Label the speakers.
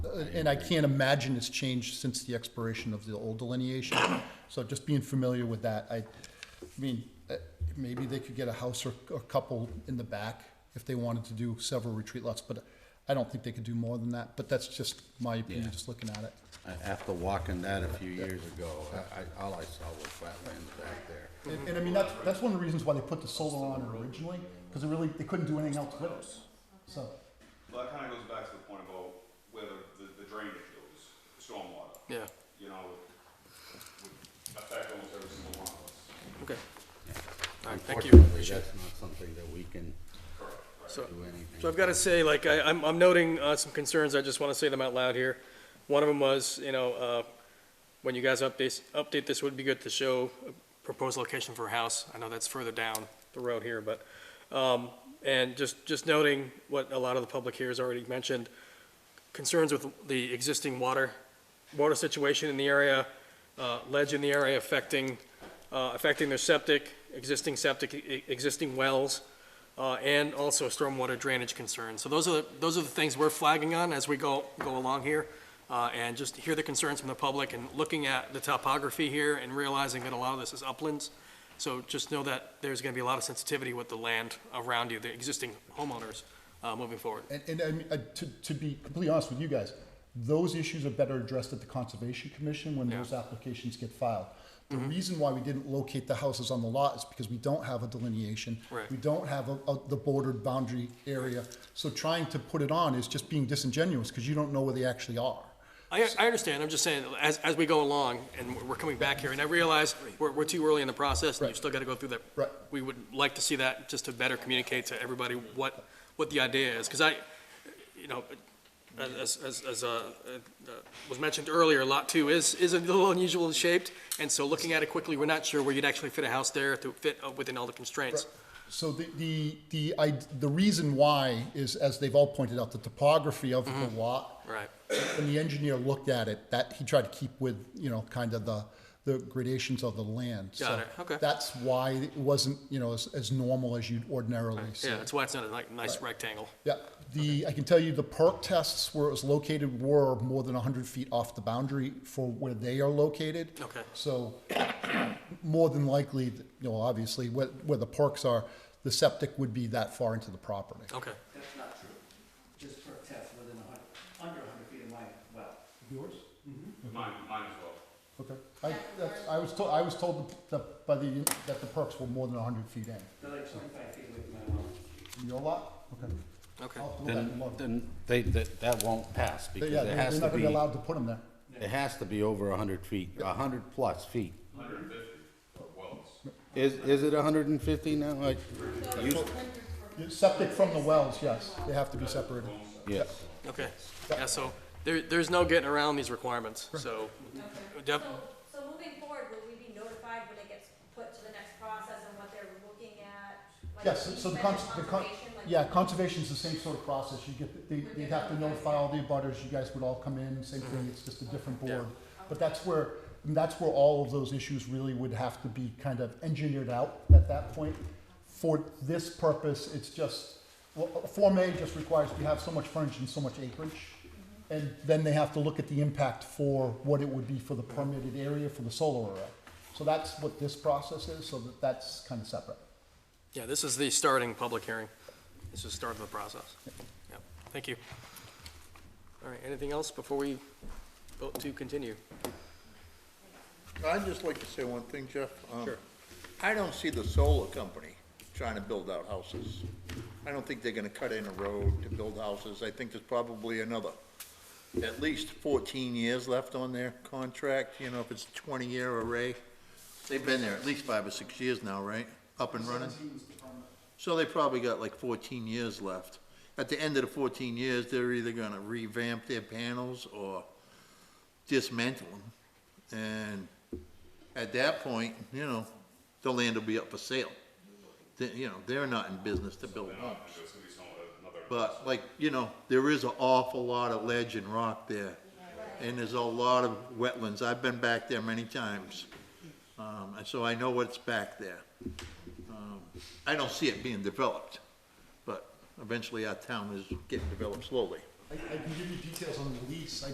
Speaker 1: Uh, and I can't imagine it's changed since the expiration of the old delineation. So just being familiar with that, I, I mean, eh, maybe they could get a house or a couple in the back if they wanted to do several retreat lots, but I don't think they could do more than that, but that's just my opinion,
Speaker 2: Yeah.
Speaker 1: just looking at it.
Speaker 2: A- After walking that a few years ago, I, I- all I saw was wetlands back there.
Speaker 1: And, and I mean, that's, that's one of the reasons why they put the solar on it originally, because they really, they couldn't do anything else with it, so.
Speaker 3: Well, that kind of goes back to the point about where the, the drainage goes, stormwater.
Speaker 4: Yeah,
Speaker 3: You know, would affect almost every single one of us.
Speaker 4: okay. All right, thank you.
Speaker 2: Unfortunately, that's not something that we can
Speaker 4: So,
Speaker 2: do anything.
Speaker 4: so I've got to say, like, I, I'm, I'm noting, uh, some concerns, I just want to say them out loud here. One of them was, you know, uh, when you guys update, update this, would be good to show a proposed location for a house. I know that's further down the road here, but, um, and just, just noting what a lot of the public here has already mentioned, concerns with the existing water, water situation in the area, uh, ledge in the area affecting, uh, affecting their septic, existing septic, e- existing wells, uh, and also stormwater drainage concerns. So those are, the- those are the things we're flagging on as we go, go along here. Uh, and just hear the concerns from the public and looking at the topography here and realizing that a lot of this is uplands. So just know that there's gonna be a lot of sensitivity with the land around you, the existing homeowners, uh, moving forward.
Speaker 1: And, and I mean, uh, to, to be completely honest with you guys, those issues are better addressed at the Conservation Commission when
Speaker 4: Yeah. Mm-hmm.
Speaker 1: those applications get filed. The reason why we didn't locate the houses on the lot is because we don't have a delineation.
Speaker 4: Right.
Speaker 1: We don't have a, a, the bordered boundary area. So trying to put it on is just being disingenuous because you don't know where they actually are.
Speaker 4: I, I understand, I'm just saying, as, as we go along, and we're- we're coming back here, and I realize we're, we're too early in the process, and you've still gotta go through that.
Speaker 1: Right.
Speaker 4: We would like to see that, just to better communicate to everybody what, what the idea is, because I, you know, as, as, as, uh, uh, was mentioned earlier, Lot Two is, is a little unusual shaped, and so looking at it quickly, we're not sure where you'd actually fit a house there to fit uh, within all the constraints.
Speaker 1: So the, the, the, I, the reason why is, as they've all pointed out, the topography of
Speaker 4: Mm-hmm.
Speaker 1: the lot.
Speaker 4: Right.
Speaker 1: When the engineer looked at it, that, he tried to keep with, you know, kind of the, the gradations of the land. So
Speaker 4: Got it, okay.
Speaker 1: That's why it wasn't, you know, as, as normal as you'd ordinarily see.
Speaker 4: Yeah, that's why it's not a ni- nice rectangle.
Speaker 1: Yeah, the, I can tell you the perk tests where it was located were more than hundred feet off the boundary for where they are located.
Speaker 4: Okay.
Speaker 1: So, more than likely, you know, obviously, where, where the perks are, the septic would be that far into the property.
Speaker 4: Okay,
Speaker 5: That's not true. Just per test within a hundred, under a hundred feet of my well.
Speaker 1: Yours?
Speaker 3: Mine, mine as well.
Speaker 1: Okay, I, that's, I was told, I was told that, by the, that the perks were more than hundred feet in.
Speaker 5: They're like twenty-five feet away from my well.
Speaker 1: Your lot? Okay.
Speaker 4: okay.
Speaker 1: I'll have to look at it and
Speaker 2: Then,
Speaker 1: look.
Speaker 2: then they, that, that won't pass
Speaker 1: They-
Speaker 2: because
Speaker 1: Yeah,
Speaker 2: it
Speaker 1: they're
Speaker 2: has
Speaker 1: they're
Speaker 2: to
Speaker 1: not gonna be
Speaker 2: be,
Speaker 1: allowed to put them there.
Speaker 2: it has to be over a hundred feet, a hundred plus feet.
Speaker 3: Hundred and fifty wells.
Speaker 2: Is, is it a hundred and fifty now? Like, you-
Speaker 1: Septic from the wells, yes, they have to be separated.
Speaker 2: yes.
Speaker 4: Okay, yeah, so there, there's no getting around these requirements, so def-
Speaker 6: So, so moving forward, will we be notified when it gets put to the next process and what they're looking at? Like,
Speaker 1: Yes,
Speaker 6: we
Speaker 1: so the
Speaker 6: spend
Speaker 1: con, the con,
Speaker 6: conservation, like-
Speaker 1: yeah, conservation's the same sort of process, you get, the- they, they'd have to notify all the abutters, you guys would all come in, same thing, it's just a different board. But that's where, and that's where all of those issues really would have to be kind of engineered out at that point. For this purpose, it's just, well, Form A just requires you have so much frontage and so much acreage.
Speaker 6: Mm-hmm.
Speaker 1: And then they have to look at the impact for what it would be for the permitted area for the solar array. So that's what this process is, so that, that's kind of separate.
Speaker 4: yeah, this is the starting public hearing. This is the start of the process. Yeah, thank you. All right, anything else before we vote to continue?
Speaker 7: I'd just like to say one thing, Jeff. Um,
Speaker 4: Sure.
Speaker 7: I don't see the solar company trying to build out houses. I don't think they're gonna cut in a road to build houses. I think there's probably another, at least fourteen years left on their contract, you know, if it's a twenty-year array. They've been there at least five or six years now, right? Up and running? So they probably got like fourteen years left. At the end of the fourteen years, they're either gonna revamp their panels or dismantle them. And at that point, you know, the land will be up for sale. They- you know, they're not in business to build homes. But like, you know, there is an awful lot of ledge and rock there, and there's a lot of wetlands. I've been back there many times, um, and so I know what's back there. Um, I don't see it being developed, but eventually our town is getting developed slowly.
Speaker 1: I, I can give you details on the lease, I